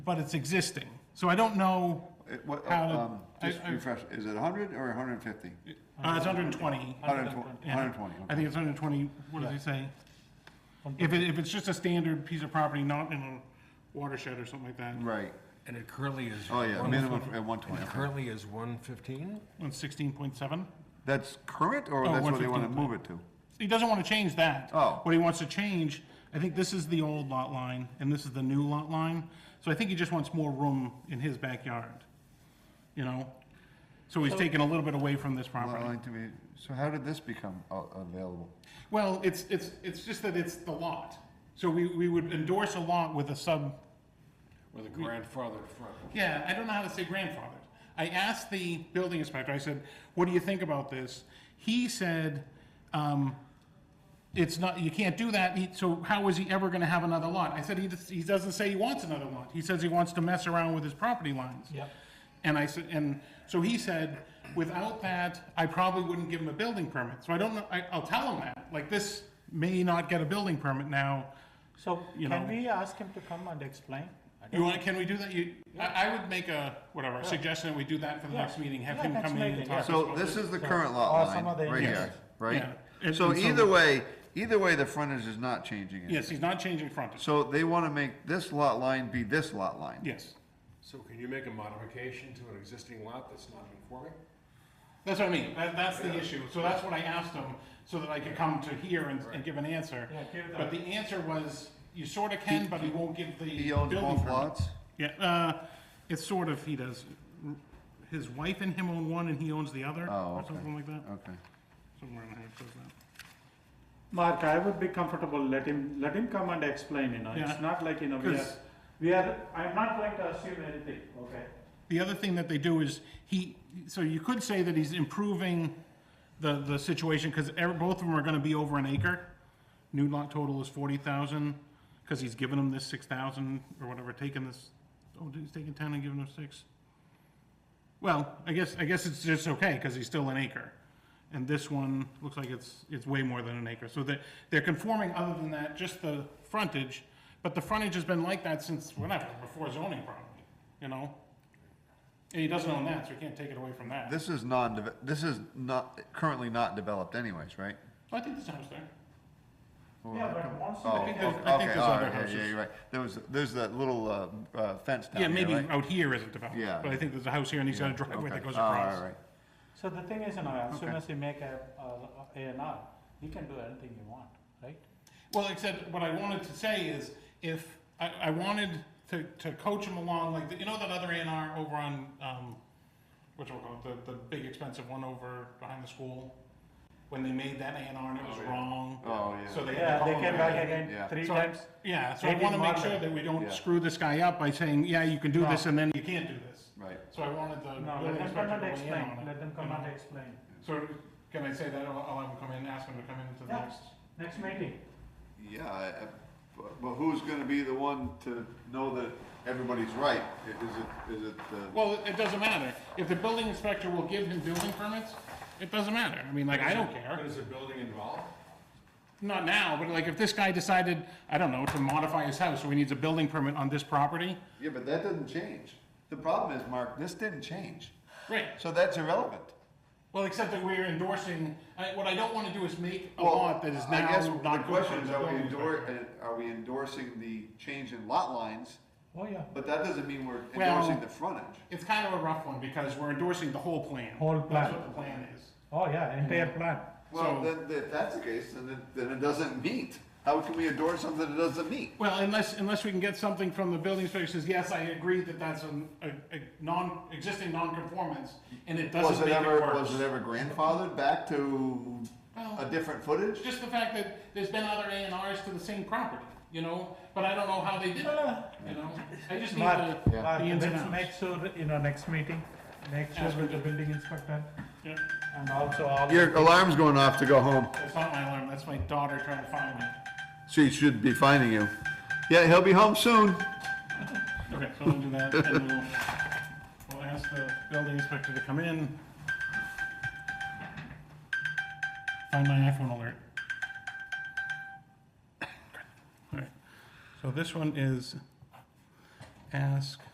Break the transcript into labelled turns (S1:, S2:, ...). S1: but it's existing. So I don't know,
S2: It- what-
S1: How did-
S2: um, Just
S1: I- I-
S2: refresh, is it hundred or hundred and fifty?
S1: uh, it's 120.
S2: Hundred and twenty,
S1: Yeah.
S2: hundred and twenty,
S1: I think it's 120, what does he say? If it, if it's just a standard piece of property, not in a watershed or something like that,
S2: right,
S3: And it currently is.
S2: oh yeah,
S3: one-
S2: minimum at one
S3: and
S2: twenty.
S3: It currently is one fifteen?
S1: on 16.7.
S2: That's current, or
S1: Oh,
S2: that's what they wanna
S1: 115.
S2: move it to?
S1: He doesn't want to change that.
S2: Oh.
S1: What he wants to change, I think this is the old lot line and this is the new lot line. So I think he just wants more room in his backyard, you know? So he's taking a little bit away from this
S2: Lot
S1: property.
S2: line to be- So how did this become a- available?
S1: Well, it's, it's, it's just that it's the lot. So we, we would endorse a lot with a sub,
S3: With a grandfather in front.
S1: yeah, I don't know how to say grandfathered. I asked the building inspector, I said, what do you think about this? He said, um, it's not, you can't do that, He- so how is he ever gonna have another lot? I said, he, just- he doesn't say he wants another lot, he says he wants to mess around with his property lines.
S3: Yep.
S1: And I said, and so he said, without that, I probably wouldn't give him a building permit, so I don't know, I, I'll tell him that, like, this may not get a building permit now.
S4: So
S1: You
S4: can
S1: know.
S4: we ask him to come and explain? I
S1: You
S4: don't-
S1: wanna, can we do that? You, I, I would make a, whatever, a suggestion that we do that for the
S4: Yeah.
S1: next meeting, have
S4: Yeah,
S1: him
S4: next
S1: come in and
S4: meeting,
S1: talk.
S4: yeah.
S1: to us
S2: So
S1: about
S2: this
S1: it.
S2: is the current lot
S4: Or some
S2: line,
S4: other
S2: right
S4: areas.
S2: here, right?
S1: Yeah. And-
S2: So
S1: and so-
S2: either way, either way, the frontage is not changing it.
S1: Yes, he's not changing frontage,
S2: So they wanna make this lot line be this lot line?
S1: yes.
S5: So can you make a modification to an existing lot that's not conforming?
S1: That's what I mean, that, that's the issue, so that's what I asked him, so that I could come to here and, and give an answer.
S4: Yeah, give
S1: But the answer was, you sorta can, but he won't give the
S2: He owns
S1: building
S2: both
S1: permit.
S2: lots?
S1: Yeah, uh, it's sort of, he does, his wife and him own one and he owns the other,
S2: Oh,
S1: or
S2: okay.
S1: something like that,
S2: Okay.
S1: somewhere in here, it says that.
S4: Mark, I would be comfortable, let him, let him come and explain, you know,
S1: Yeah.
S4: it's not like, you know, we are,
S1: 'Cause-
S4: we are, I'm not going to assume anything, okay?
S1: The other thing that they do is he, so you could say that he's improving the, the situation, because both of them are gonna be over an acre. New lot total is forty thousand, because he's given them this six thousand or whatever, taking this, oh, he's taking ten and giving them six. Well, I guess, I guess it's just okay, because he's still an acre. And this one looks like it's, it's way more than an acre, so that, they're conforming other than that, just the frontage. But the frontage has been like that since whenever, before zoning probably, you know? And he doesn't own that, so he can't take it away from that.
S2: This is non, this is not, currently not developed anyways, right?
S1: Oh, I think this house there.
S2: Well,
S4: Yeah,
S2: how
S4: but
S2: come-
S4: once you-
S2: Oh,
S1: I think there's- I think
S2: okay,
S1: there's
S2: all
S1: other
S2: right, yeah, Yeah,
S1: houses.
S2: you're right. There was, there's that little uh, uh, fence down
S1: Yeah,
S2: there,
S1: maybe
S2: right?
S1: out here isn't developed,
S2: Yeah.
S1: but I think there's a house here and he's got a driveway
S2: Okay.
S1: that goes
S2: Oh, all
S1: across.
S2: right,
S4: So the thing is, you know, as soon
S2: Okay.
S4: as you make a, a, A and R, you can do anything you want, right?
S1: Well, except what I wanted to say is if, I, I wanted to, to coach him along, like, the- you know that other A and R over on, um, which we'll call it, the, the big expensive one over behind the school? When they made that A and R and it was
S5: Oh, yeah.
S1: wrong?
S2: Oh, yeah.
S1: So they. had to
S4: Yeah, they
S1: call it
S4: came back
S2: Yeah.
S4: again three
S1: So-
S4: times.
S1: Yeah, so
S4: They
S1: I wanna
S4: did
S1: make
S4: model
S1: sure
S4: it.
S1: that we
S2: Yeah.
S1: don't screw this guy up by saying, yeah, you can do
S4: No.
S1: this and then you can't do this.
S2: Right.
S1: So I wanted the
S4: No,
S1: building
S4: let them come
S1: inspector
S4: and
S1: to weigh in on
S4: explain,
S1: it, Mm-hmm.
S4: let them
S1: you
S4: come
S1: know?
S4: and explain.
S1: So can I say that, I'll, I'll have him come in, ask him to come in to the
S4: Yeah.
S1: next?
S4: Next meeting,
S2: Yeah, I- I- but- but who's gonna be the one to know that everybody's right? I- Is it, is it the?
S1: Well, it doesn't matter, if the building inspector will give him building permits, it doesn't matter, I mean, like, I don't care.
S5: Is a building involved?
S1: Not now, but like, if this guy decided, I don't know, to modify his house, so he needs a building permit on this property,
S2: Yeah, but that doesn't change. The problem is, Mark, this didn't change,
S1: great.
S2: so that's irrelevant.
S1: Well, except that we're endorsing, I, what I don't wanna do is make a
S2: Well,
S1: lot that is
S2: I guess
S1: now
S2: the
S1: not good
S2: question
S1: for
S2: is,
S1: the
S2: are we
S1: building inspector.
S2: endor, uh, are we endorsing the change in lot lines?
S4: oh yeah,
S2: But that doesn't mean we're
S1: Well-
S2: endorsing the frontage.
S1: It's kind of a rough one, because we're endorsing the whole plan.
S4: Whole
S1: That's
S4: plan.
S1: what the plan is.
S4: oh yeah, entire plan.
S1: So-
S2: Well, then, then if that's the case, then it, then it doesn't meet. How can we endorse something that doesn't meet?
S1: Well, unless, unless we can get something from the building inspector says, yes, I agree that that's an- a, a non, existing non-conformance, and it
S2: Was
S1: doesn't
S2: it
S1: make it
S2: ever, was it
S1: worse.
S2: ever grandfathered back to a
S1: Well-
S2: different footage?
S1: Just the fact that there's been other A and Rs to the same property, you know, but I don't know how they did it, you know? I just need to,
S4: Mark,
S1: the
S4: Mark,
S1: ins and
S4: let's
S1: outs.
S4: make sure, you know, next meeting, make sure
S1: Ask
S4: with the
S1: him to-
S4: building inspector
S1: Yeah,
S4: and also all.
S2: Your alarm's going off to go home.
S1: That's not my alarm, that's my daughter trying to find me.
S2: She should be finding you. Yeah, he'll be home soon.
S1: Okay, so we'll do that, and we'll, we'll ask the building inspector to come in. Find my iPhone alert. Alright, so this one is ask